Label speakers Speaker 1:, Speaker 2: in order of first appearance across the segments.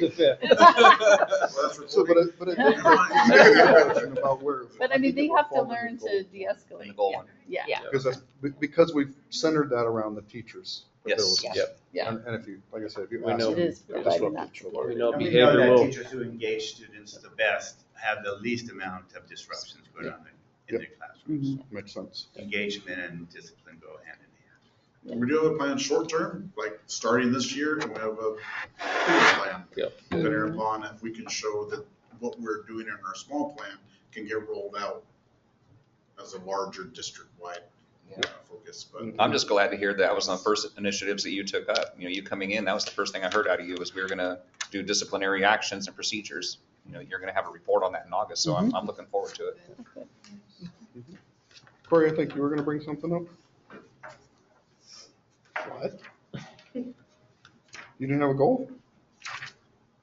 Speaker 1: the fifth.
Speaker 2: So, but I, but I think
Speaker 3: Fine.
Speaker 2: that's a good question about where.
Speaker 4: But I mean, they have to learn to
Speaker 5: in the
Speaker 4: de-escalate.
Speaker 5: goal
Speaker 4: Yeah.
Speaker 5: line.
Speaker 4: Yeah,
Speaker 2: Because that's, be- because we've centered that around the teachers.
Speaker 5: Yes,
Speaker 2: abilities.
Speaker 5: yep.
Speaker 4: Yeah.
Speaker 2: And, and if you, like I said, if you
Speaker 6: We
Speaker 2: ask
Speaker 6: know-
Speaker 4: it
Speaker 2: them,
Speaker 4: is
Speaker 2: they're
Speaker 4: providing that.
Speaker 2: disruptive to
Speaker 6: We
Speaker 2: learning.
Speaker 6: know
Speaker 3: We know that
Speaker 6: behavioral,
Speaker 3: teachers who engage students the best have the least amount of disruptions going on in in their classrooms.
Speaker 2: Makes sense.
Speaker 3: Engagement and discipline go hand in hand.
Speaker 7: And we do have a plan short term, like starting this year, and we have a bigger plan.
Speaker 6: Yep.
Speaker 7: Depending upon if we can show that what we're doing in our small plan can get rolled out as a larger district-wide uh, focus, but.
Speaker 5: I'm just glad to hear that was one of the first initiatives that you took up. You know, you coming in, that was the first thing I heard out of you was we were gonna do disciplinary actions and procedures. You know, you're gonna have a report on that in August, so I'm, I'm looking forward to it.
Speaker 2: Corey, I think you were gonna bring something up? What? You didn't have a goal?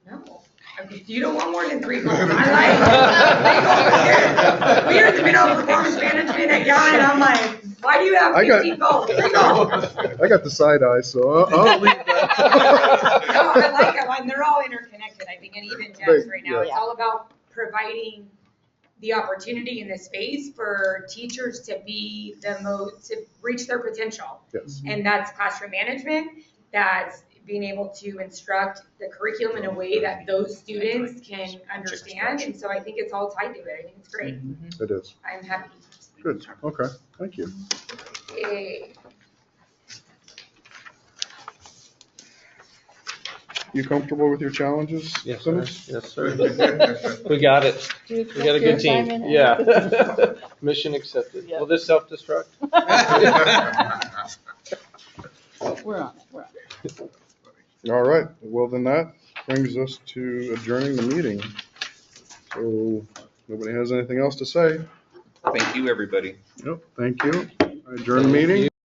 Speaker 8: No, I mean, you don't want more than three goals in my life. We are, we know performance management at Yon, and I'm like, why do you have
Speaker 2: I got-
Speaker 8: fifteen goals, three goals?
Speaker 2: I got the side eye, so I'll- I'll leave that.
Speaker 8: No, I like it, and they're all interconnected, I think, and even Jeff's right now, it's
Speaker 4: Yeah.
Speaker 8: all about providing the opportunity and the space for teachers to be the most, to reach their potential.
Speaker 2: Yes.
Speaker 8: And that's classroom management, that's being able to instruct the curriculum in a way that those students can understand. And so I think it's all tied to it, I think it's great,
Speaker 2: It is.
Speaker 8: I'm happy.
Speaker 2: Good. Okay. Thank you.
Speaker 8: Eh,
Speaker 2: You comfortable with your challenges?
Speaker 6: yes, sir,
Speaker 2: Simmons?
Speaker 6: yes, sir. We got it,
Speaker 4: We
Speaker 6: we got a good team, yeah. Mission accepted. Will this self-destruct?
Speaker 4: We're on it, we're on it.
Speaker 2: All right, well then that brings us to adjourning the meeting. So, nobody has anything else to say?
Speaker 5: Thank you, everybody.
Speaker 2: Yep. Thank you. Adjourn the meeting.